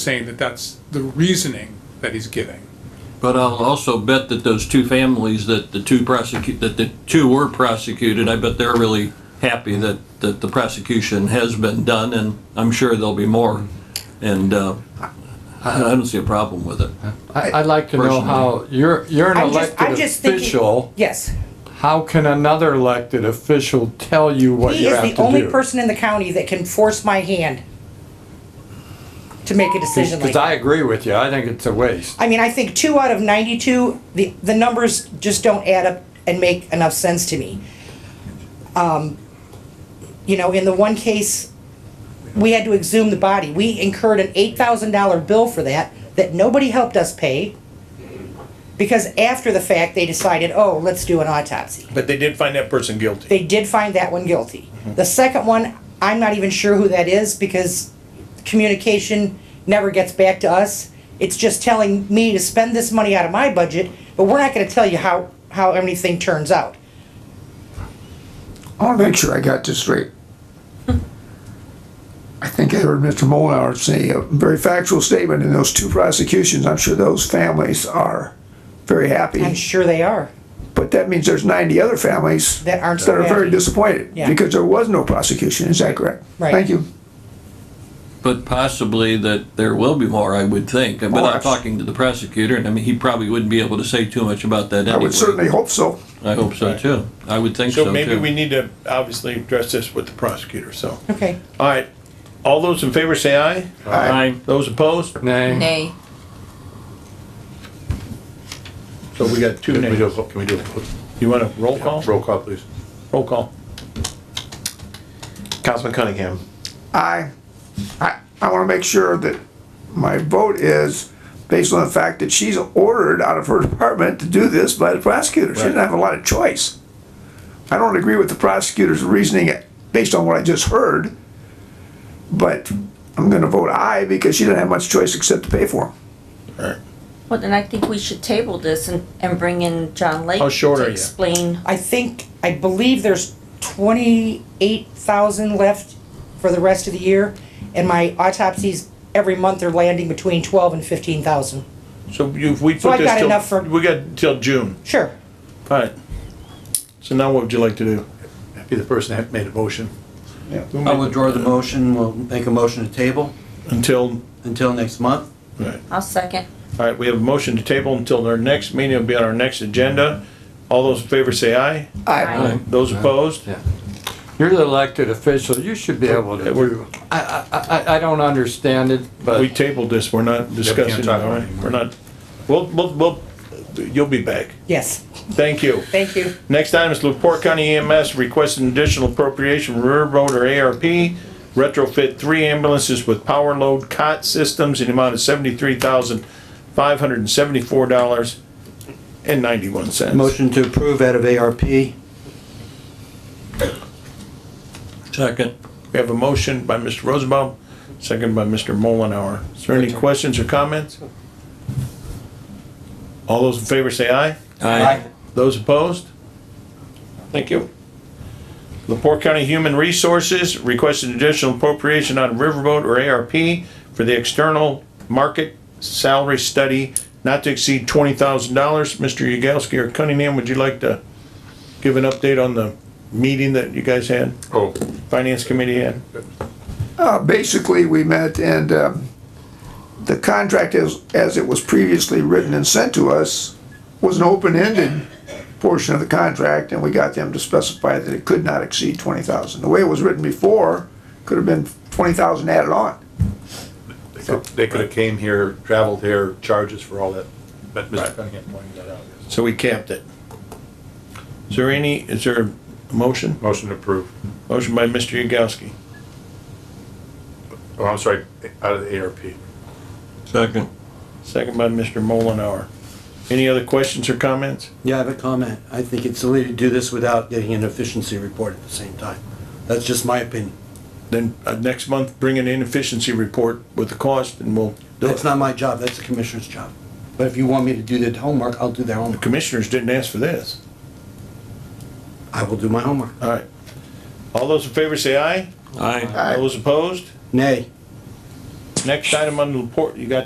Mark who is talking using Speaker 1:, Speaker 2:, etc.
Speaker 1: saying that that's the reasoning that he's giving.
Speaker 2: But I'll also bet that those two families that the two prosecute, that the two were prosecuted, I bet they're really happy that, that the prosecution has been done, and I'm sure there'll be more. And, uh, I, I don't see a problem with it.
Speaker 3: I- I'd like to know how, you're, you're an
Speaker 4: I'm just, I'm
Speaker 3: elected
Speaker 4: just thinking-
Speaker 3: official.
Speaker 4: Yes,
Speaker 3: How can another elected official tell you what
Speaker 4: he
Speaker 3: you
Speaker 4: is
Speaker 3: have to do?
Speaker 4: the only person in the county that can force my hand to make a decision like
Speaker 3: Because
Speaker 4: that.
Speaker 3: I agree with you. I think it's a waste.
Speaker 4: I mean, I think two out of ninety-two, the, the numbers just don't add up and make enough sense to me. Um, you know, in the one case, we had to exhume the body. We incurred an eight thousand dollar bill for that, that nobody helped us pay. Because after the fact, they decided, oh, let's do an autopsy.
Speaker 5: But they did find that person guilty.
Speaker 4: They did find that one guilty. The second one, I'm not even sure who that is because communication never gets back to us. It's just telling me to spend this money out of my budget, but we're not gonna tell you how, how everything turns out.
Speaker 6: I want to make sure I got this straight. I think I heard Mr. Molnar say a very factual statement in those two prosecutions. I'm sure those families are very
Speaker 4: I'm
Speaker 6: happy.
Speaker 4: sure they are.
Speaker 6: But that means there's 90 other families
Speaker 4: That aren't so
Speaker 6: that are very
Speaker 4: happy.
Speaker 6: disappointed
Speaker 4: Yeah.
Speaker 6: because there was no prosecution. Is that correct?
Speaker 4: Right.
Speaker 6: Thank you.
Speaker 2: But possibly that there will be more, I would think, but
Speaker 6: Oh,
Speaker 2: I'm
Speaker 6: abs-
Speaker 2: talking to the prosecutor, and I mean, he probably wouldn't be able to say too much about that
Speaker 6: I would
Speaker 2: anyway.
Speaker 6: certainly hope so.
Speaker 2: I hope so too. I would think so too.
Speaker 5: So maybe we need to obviously address this with the prosecutor, so.
Speaker 4: Okay.
Speaker 5: All right, all those in favor say aye.
Speaker 2: Aye.
Speaker 5: Those opposed?
Speaker 3: Nay.
Speaker 7: Nay.
Speaker 5: So we got two
Speaker 8: Can we do,
Speaker 5: names.
Speaker 8: a- can we do
Speaker 5: You want to roll
Speaker 8: a roll
Speaker 5: call?
Speaker 8: call, please?
Speaker 5: Roll call. Councilman Cunningham.
Speaker 6: I, I, I want to make sure that my vote is based on the fact that she's ordered out of her department to do this by the prosecutor. She didn't
Speaker 5: Right.
Speaker 6: have a lot of choice. I don't agree with the prosecutor's reasoning based on what I just heard, but I'm going to vote aye because she didn't have much choice except to pay for them.
Speaker 7: Well, then I think we should table this and, and bring in John Lake.
Speaker 5: How short
Speaker 7: to
Speaker 5: are you?
Speaker 7: Explain.
Speaker 4: I think, I believe there's twenty-eight thousand left for the rest of the year. And my autopsies every month are landing between twelve and fifteen thousand.
Speaker 5: So you, we
Speaker 4: So
Speaker 5: put
Speaker 4: I got enough
Speaker 5: this
Speaker 4: for-
Speaker 5: till, we got till June.
Speaker 4: Sure.
Speaker 5: All right. So now what would you like to do?
Speaker 8: Be the person that made a motion.
Speaker 9: I'll withdraw the motion, we'll make a motion to table
Speaker 5: Until,
Speaker 9: until next month.
Speaker 7: I'll second.
Speaker 5: all right, we have a motion to table until our next meeting will be on our next agenda. All those in favor say aye.
Speaker 7: Aye.
Speaker 5: Those opposed?
Speaker 3: You're the elected official. You should be able to
Speaker 5: Okay, we're-
Speaker 3: do. I, I, I- I don't understand it, but.
Speaker 5: We tabled this, we're not discussing, it,
Speaker 8: talk about
Speaker 5: all
Speaker 8: it
Speaker 5: right?
Speaker 8: anymore.
Speaker 5: We're not, we'll, we'll, we'll, you'll be back.
Speaker 4: Yes.
Speaker 5: Thank you.
Speaker 4: Thank you.
Speaker 5: Next item is Lepore County EMS requesting additional appropriation from Railroad or ARP. Retrofit three ambulances with power load cot systems in the amount of seventy-three thousand, five hundred and seventy-four dollars and ninety-one cents.
Speaker 9: Motion to approve out of ARP.
Speaker 2: Second.
Speaker 5: We have a motion by Mr. Rosenbaum, second by Mr. Mullenhour. Is there any questions or comments? All those in favor say aye.
Speaker 2: Aye.
Speaker 5: Those opposed? Thank you. Lepore County Human Resources requested additional appropriation out of Riverboat or ARP for the external market salary study not to exceed twenty thousand dollars. Mr. Yagowski or Cunningham, would you like to give an update on the meeting that you guys had,
Speaker 8: Oh,
Speaker 5: Finance Committee had?
Speaker 6: Uh, basically, we met and, um, the contract as, as it was previously written and sent to us was an open-ended portion of the contract, and we got them to specify that it could not exceed twenty thousand. The way it was written before, could have been twenty thousand added on.
Speaker 8: they could- they could have came here, traveled here, charges for all that, but Mr. Cunningham pointed that out. yes.
Speaker 5: So we capped it. Is there any, is there a motion?
Speaker 8: Motion to approve.
Speaker 5: Motion by Mr. Yagowski.
Speaker 8: Oh, I'm sorry, out of the ARP.
Speaker 2: Second.
Speaker 5: Second by Mr. Mullenhour. Any other questions or comments?
Speaker 9: Yeah, I have a comment. I think it's silly to do this without getting an efficiency report at the same time. That's just my opinion.
Speaker 5: Then uh, next month, bring an inefficiency report with the cost and we'll do it.
Speaker 9: That's not my job, that's the commissioner's job. But if you want me to do the homework, I'll do their
Speaker 5: The
Speaker 9: homework.
Speaker 5: commissioners didn't ask for this.
Speaker 9: I will do my homework.
Speaker 5: All right. All those in favor say aye.
Speaker 2: Aye.
Speaker 5: Those opposed?
Speaker 9: Nay.
Speaker 5: Next item on the report, you got